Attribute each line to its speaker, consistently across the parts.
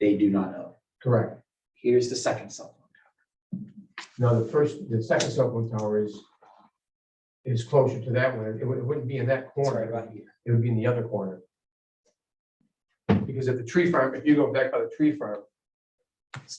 Speaker 1: they do not know.
Speaker 2: Correct.
Speaker 1: Here's the second cell phone.
Speaker 2: Now, the first, the second cell phone tower is, is closer to that one. It wou- it wouldn't be in that
Speaker 1: It's right
Speaker 2: corner.
Speaker 1: about here.
Speaker 2: It would be in the other corner. Because if the tree farm, if you go back by the tree farm,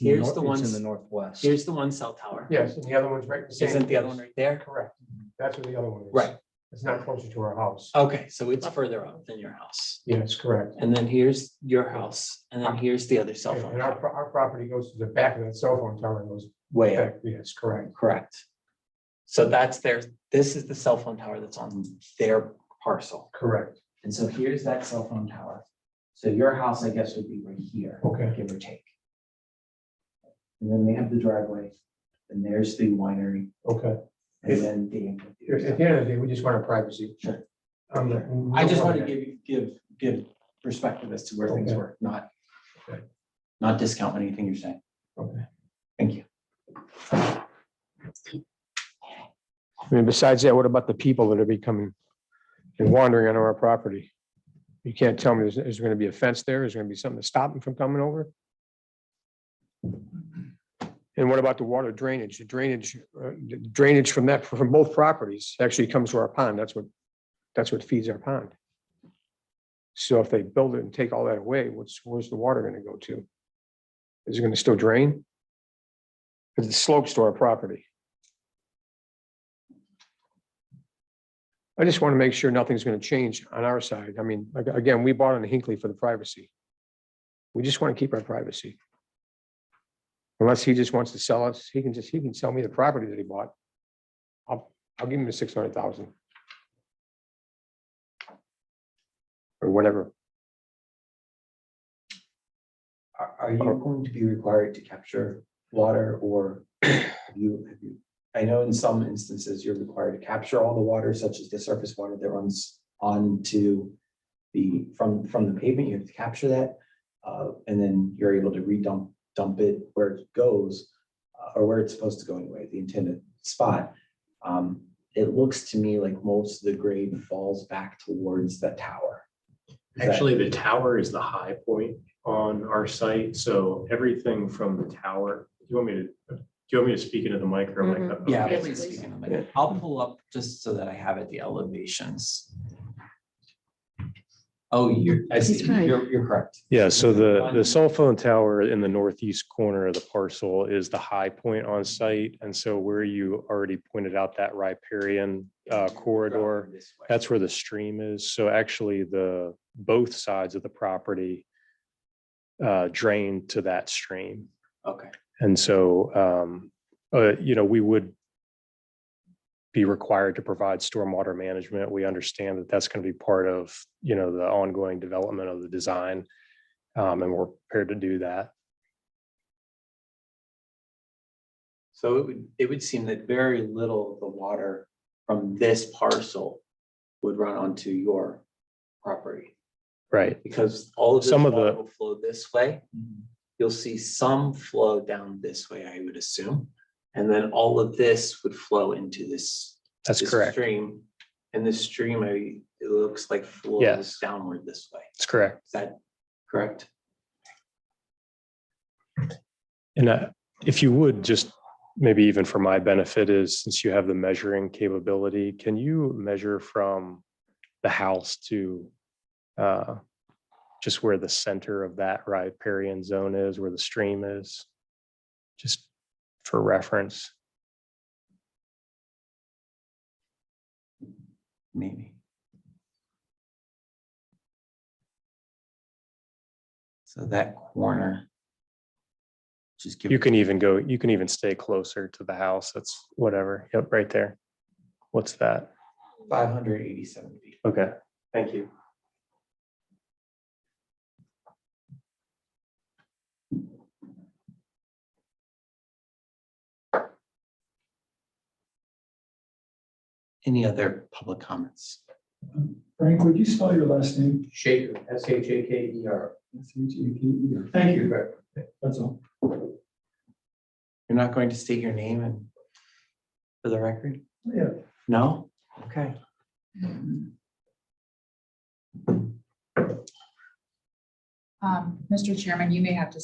Speaker 3: Here's the
Speaker 4: Nor- it's In the
Speaker 3: one,
Speaker 4: northwest.
Speaker 3: here's the one cell tower.
Speaker 2: yes, and the other one's right. same
Speaker 3: Isn't the other one right there?
Speaker 2: Correct. That's where the other one is.
Speaker 3: Right. Oh.
Speaker 2: It's not closer to our house.
Speaker 3: Okay, so it's further up than your house.
Speaker 2: Yes, correct.
Speaker 3: And then here's your house, and then here's the other cell phone
Speaker 2: And our,
Speaker 3: tower.
Speaker 2: pro- our property goes to the back of that cell phone tower and goes
Speaker 3: Way up,
Speaker 2: back. Yes, correct.
Speaker 3: correct. So that's their, this is the cell phone tower that's on their parcel.
Speaker 2: Correct.
Speaker 1: And so here's that cell phone tower. So your house, I guess, would be right here,
Speaker 2: Okay.
Speaker 1: give or take. And then they have the driveway, and there's the winery,
Speaker 2: Okay.
Speaker 1: and then the.
Speaker 2: At
Speaker 1: amphitheater.
Speaker 2: the end of the day, we just want our privacy.
Speaker 1: Sure.
Speaker 2: I'm not-
Speaker 1: I just want to give, you- give, give perspective as to where things
Speaker 2: Okay.
Speaker 1: were, not,
Speaker 2: Okay.
Speaker 1: not discount anything you're saying.
Speaker 2: Okay.
Speaker 1: Thank you.
Speaker 5: I mean, besides that, what about the people that are becoming and wandering onto our property? You can't tell me, is, is there gonna be a fence there? Is there gonna be something to stop them from coming over? And what about the water drainage? The drainage, uh, the drainage from that, from both properties actually comes to our pond. That's what, that's what feeds our pond. So if they build it and take all that away, what's, where's the water gonna go to? Is it gonna still drain? Because it slopes to our property. I just want to make sure nothing's going to change on our side. I mean, ag- again, we bought on Hinckley for the privacy. We just want to keep our privacy. Unless he just wants to sell us, he can just, he can sell me the property that he bought. I'll, I'll give him the six hundred thousand. Or whatever.
Speaker 1: Are, are you going to be required to capture water or have you, have you? I know in some instances you're required to capture all the water, such as the surface water that runs onto the, from, from the pavement, you have to capture that. Uh, and then you're able to redump, dump it where it goes, uh, or where it's supposed to go anyway, the intended spot. Um, it looks to me like most of the grade falls back towards the tower. Is that-
Speaker 6: Actually, the tower is the high point on our site, so everything from the tower, do you want me to, do you want me to speak into the mic or am I? cut-
Speaker 3: Yeah.
Speaker 6: Okay.
Speaker 3: please speak in a minute. I'll pull up just so that I have it, the elevations.
Speaker 1: Oh, you're, I see,
Speaker 7: He's right.
Speaker 1: you're, you're correct.
Speaker 8: Yeah, so the,
Speaker 1: One-
Speaker 8: the cell phone tower in the northeast corner of the parcel is the high point on site. And so where you already pointed out that riparian uh, corridor,
Speaker 1: This way.
Speaker 8: that's where the stream is. So actually the, both sides of the property uh, drain to that stream.
Speaker 1: Okay.
Speaker 8: And so, um, uh, you know, we would be required to provide stormwater management. We understand that that's going to be part of, you know, the ongoing development of the design. Um, and we're prepared to do that.
Speaker 3: So it would, it would seem that very little of the water
Speaker 1: From this parcel would run onto your property
Speaker 8: Right.
Speaker 3: because all of this
Speaker 8: Some of
Speaker 3: water
Speaker 8: the- Mm-hmm.
Speaker 3: will flow this way. You'll see some flow down this way, I would assume. And then all of this would flow into this.
Speaker 8: That's
Speaker 3: this
Speaker 8: correct.
Speaker 3: Stream. And this stream, I, it looks like flows
Speaker 8: Yes.
Speaker 3: downward this way.
Speaker 8: That's correct.
Speaker 3: Is that correct?
Speaker 8: And uh, if you would, just maybe even for my benefit is, since you have the measuring capability, can you measure from the house to uh, just where the center of that riparian zone is, where the stream is? Just for reference.
Speaker 1: maybe. So that corner. Just give.
Speaker 8: You can even go, you can even stay closer to the house. That's whatever. Yep, right there. What's that?
Speaker 1: Five hundred eighty-seven feet.
Speaker 8: Okay.
Speaker 1: Thank you.
Speaker 3: Any other public comments?
Speaker 9: Frank, would you spell your last name?
Speaker 2: Shaker, S H A K E R.
Speaker 9: S H A K E R. Thank you, that's all.
Speaker 3: You're not going to state your name and for the record?
Speaker 9: Yeah.
Speaker 3: No? Okay.
Speaker 7: Um, Mr. Chairman, you may have to